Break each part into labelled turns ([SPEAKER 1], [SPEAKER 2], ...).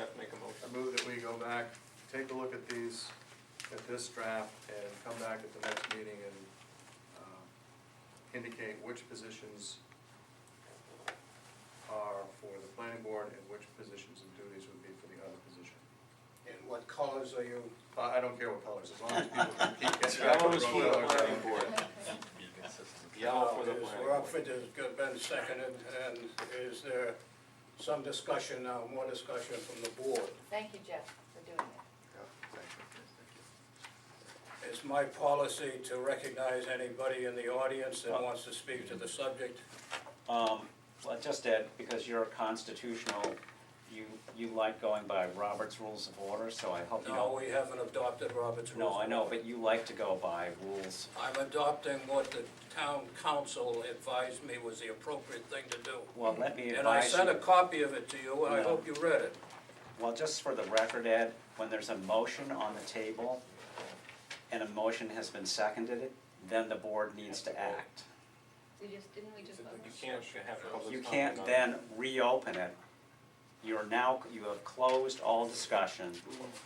[SPEAKER 1] I move that we go back, take a look at these, at this draft, and come back at the next meeting and um, indicate which positions are for the planning board and which positions and duties would be for the other position.
[SPEAKER 2] And what colors are you?
[SPEAKER 1] I, I don't care what colors, as long as people can keep getting back
[SPEAKER 3] Yellow
[SPEAKER 1] on the
[SPEAKER 3] is for the
[SPEAKER 1] road.
[SPEAKER 3] planning board. Yellow for the
[SPEAKER 2] Is-
[SPEAKER 3] planning
[SPEAKER 2] Rob
[SPEAKER 3] board.
[SPEAKER 2] Fitter's got been seconded, and is there some discussion now, more discussion from the board?
[SPEAKER 4] Thank you, Jeff, for doing it.
[SPEAKER 2] It's my policy to recognize anybody in the audience
[SPEAKER 5] Uh,
[SPEAKER 2] that wants to speak to the subject.
[SPEAKER 5] Um, well, just that, because you're a constitutional, you, you like going by Robert's Rules of Order, so I hope you
[SPEAKER 2] No,
[SPEAKER 5] don't.
[SPEAKER 2] we haven't adopted Robert's rules.
[SPEAKER 5] No, I know, but you like to go by rules.
[SPEAKER 2] I'm adopting what the town council advised me was the appropriate thing to do.
[SPEAKER 5] Well, let me
[SPEAKER 2] And I
[SPEAKER 5] advise
[SPEAKER 2] sent a
[SPEAKER 5] you,
[SPEAKER 2] copy of it to you, and I
[SPEAKER 5] No.
[SPEAKER 2] hope you read it.
[SPEAKER 5] well, just for the record, Ed, when there's a motion on the table and a motion has been seconded, then the board needs to act.
[SPEAKER 4] We just, didn't we just vote?
[SPEAKER 3] You can't have public.
[SPEAKER 5] You can't
[SPEAKER 3] comment on
[SPEAKER 5] then reopen it. You're now, you have closed all discussion.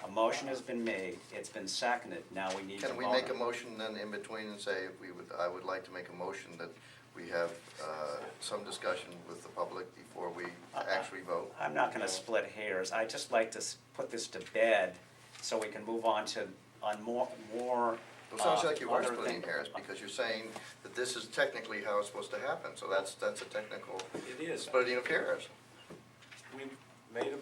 [SPEAKER 5] A motion has been made, it's been seconded, now we need to vote
[SPEAKER 6] Can we
[SPEAKER 5] on
[SPEAKER 6] make
[SPEAKER 5] it.
[SPEAKER 6] a motion then in between and say, if we would, I would like to make a motion that we have uh, some discussion with the public before we actually vote?
[SPEAKER 5] I'm not gonna split hairs, I just like to s- put this to bed, so we can move on to, on more, more.
[SPEAKER 6] It sounds
[SPEAKER 5] uh,
[SPEAKER 6] like you are
[SPEAKER 5] other
[SPEAKER 6] splitting
[SPEAKER 5] thing-
[SPEAKER 6] hairs, because you're saying that this is technically how it's supposed to happen, so that's, that's a technical
[SPEAKER 3] It is, but
[SPEAKER 6] splitting of hairs.
[SPEAKER 3] we made a.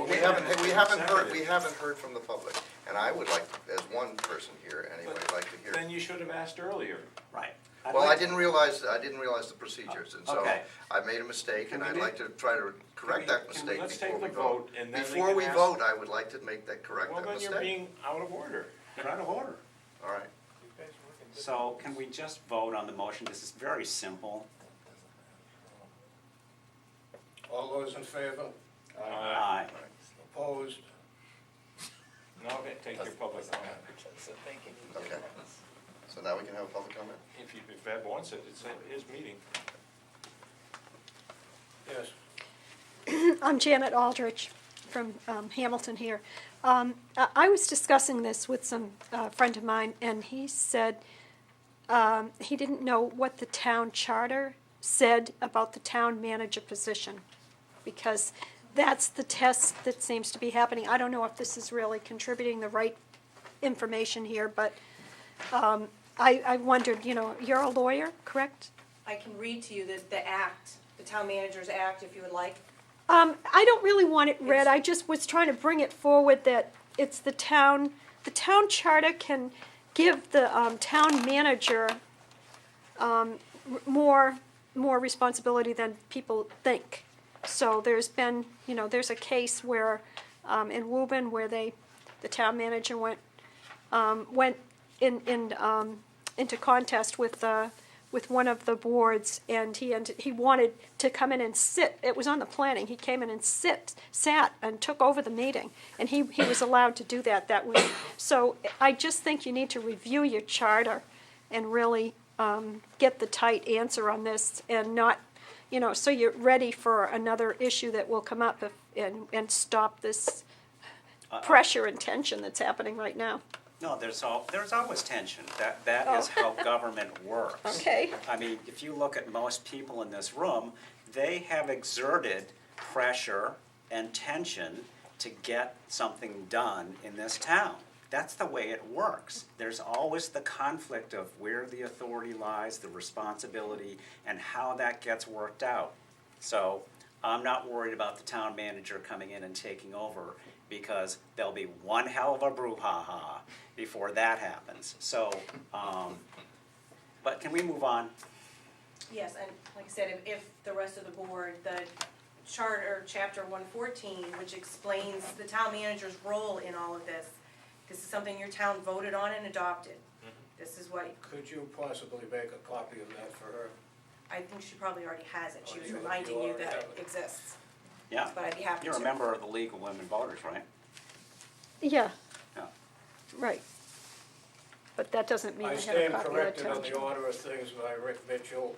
[SPEAKER 6] We haven't, we haven't heard, we haven't heard from the public, and I would like, as one person here anyway, like to hear.
[SPEAKER 3] Then you should have asked earlier.
[SPEAKER 5] Right. I'd
[SPEAKER 6] Well, I
[SPEAKER 5] like to-
[SPEAKER 6] didn't realize, I didn't realize the procedures, and so
[SPEAKER 5] Okay.
[SPEAKER 6] I made a mistake,
[SPEAKER 3] Can
[SPEAKER 6] and
[SPEAKER 3] we
[SPEAKER 6] I'd
[SPEAKER 3] do-
[SPEAKER 6] like to try to
[SPEAKER 3] can we-
[SPEAKER 6] correct that
[SPEAKER 3] can we-
[SPEAKER 6] mistake
[SPEAKER 3] let's
[SPEAKER 6] before
[SPEAKER 3] take
[SPEAKER 6] we
[SPEAKER 3] the
[SPEAKER 6] vote.
[SPEAKER 3] vote, and then we
[SPEAKER 6] Before
[SPEAKER 3] can
[SPEAKER 6] we
[SPEAKER 3] ask-
[SPEAKER 6] vote, I would like to make that, correct
[SPEAKER 3] Well,
[SPEAKER 6] that
[SPEAKER 3] then you're
[SPEAKER 6] mistake.
[SPEAKER 3] being out of order. You're out of order.
[SPEAKER 6] All right,
[SPEAKER 5] So, can we just vote on the motion, this is very simple.
[SPEAKER 2] All those in favor?
[SPEAKER 3] Uh,
[SPEAKER 5] Aye.
[SPEAKER 2] Opposed?
[SPEAKER 3] No, take your public comment.
[SPEAKER 6] okay. So now we can have a public comment?
[SPEAKER 3] If you, if Ed wants it, it's his meeting.
[SPEAKER 2] Yes.
[SPEAKER 7] I'm Janet Aldrich from um, Hamilton here. Um, I I was discussing this with some uh, friend of mine, and he said um, he didn't know what the town charter said about the town manager position, because that's the test that seems to be happening. I don't know if this is really contributing the right information here, but um, I I wondered, you know, you're a lawyer, correct?
[SPEAKER 8] I can read to you the, the act, the town manager's act, if you would like.
[SPEAKER 7] Um, I don't really want it read,
[SPEAKER 8] It's-
[SPEAKER 7] I just was trying to bring it forward that it's the town, the town charter can give the, um, town manager, um, r- more, more responsibility than people think. So there's been, you know, there's a case where, um, in Woburn where they, the town manager went, um, went in, in, um, into contest with, uh, with one of the boards, and he, and he wanted to come in and sit, it was on the planning, he came in and sit, sat and took over the meeting, and he, he was allowed to do that, that was, so I just think you need to review your charter and really, um, get the tight answer on this and not, you know, so you're ready for another issue that will come up if- and, and stop this pressure and tension that's happening right now.
[SPEAKER 5] No, there's all, there's always tension, that, that is how government works.
[SPEAKER 7] Okay.
[SPEAKER 5] I mean, if you look at most people in this room, they have exerted pressure and tension to get something done in this town. That's the way it works. There's always the conflict of where the authority lies, the responsibility, and how that gets worked out. So I'm not worried about the town manager coming in and taking over because there'll be one hell of a brouhaha before that happens. So, um, but can we move on?
[SPEAKER 8] Yes, and like I said, if, if the rest of the board, the charter, chapter one fourteen, which explains the town manager's role in all of this, this is something your town voted on and adopted.
[SPEAKER 2] Mm-hmm.
[SPEAKER 8] This is what,
[SPEAKER 2] Could you possibly make a copy of that for her?
[SPEAKER 8] I think she probably already has it, she was
[SPEAKER 2] Oh, you- you
[SPEAKER 8] reminding you
[SPEAKER 2] already
[SPEAKER 8] that
[SPEAKER 2] have
[SPEAKER 8] it
[SPEAKER 2] it.
[SPEAKER 8] exists,
[SPEAKER 5] Yeah,
[SPEAKER 8] but I'd be happy to.
[SPEAKER 5] you're a member of the League of Women Voters, right?
[SPEAKER 7] Yeah,
[SPEAKER 5] Yeah.
[SPEAKER 7] right. But that doesn't mean I
[SPEAKER 2] I
[SPEAKER 7] have a
[SPEAKER 2] stand
[SPEAKER 7] copy of the
[SPEAKER 2] corrected
[SPEAKER 7] town
[SPEAKER 2] on the
[SPEAKER 7] charter.
[SPEAKER 2] order of things by Rick Mitchell.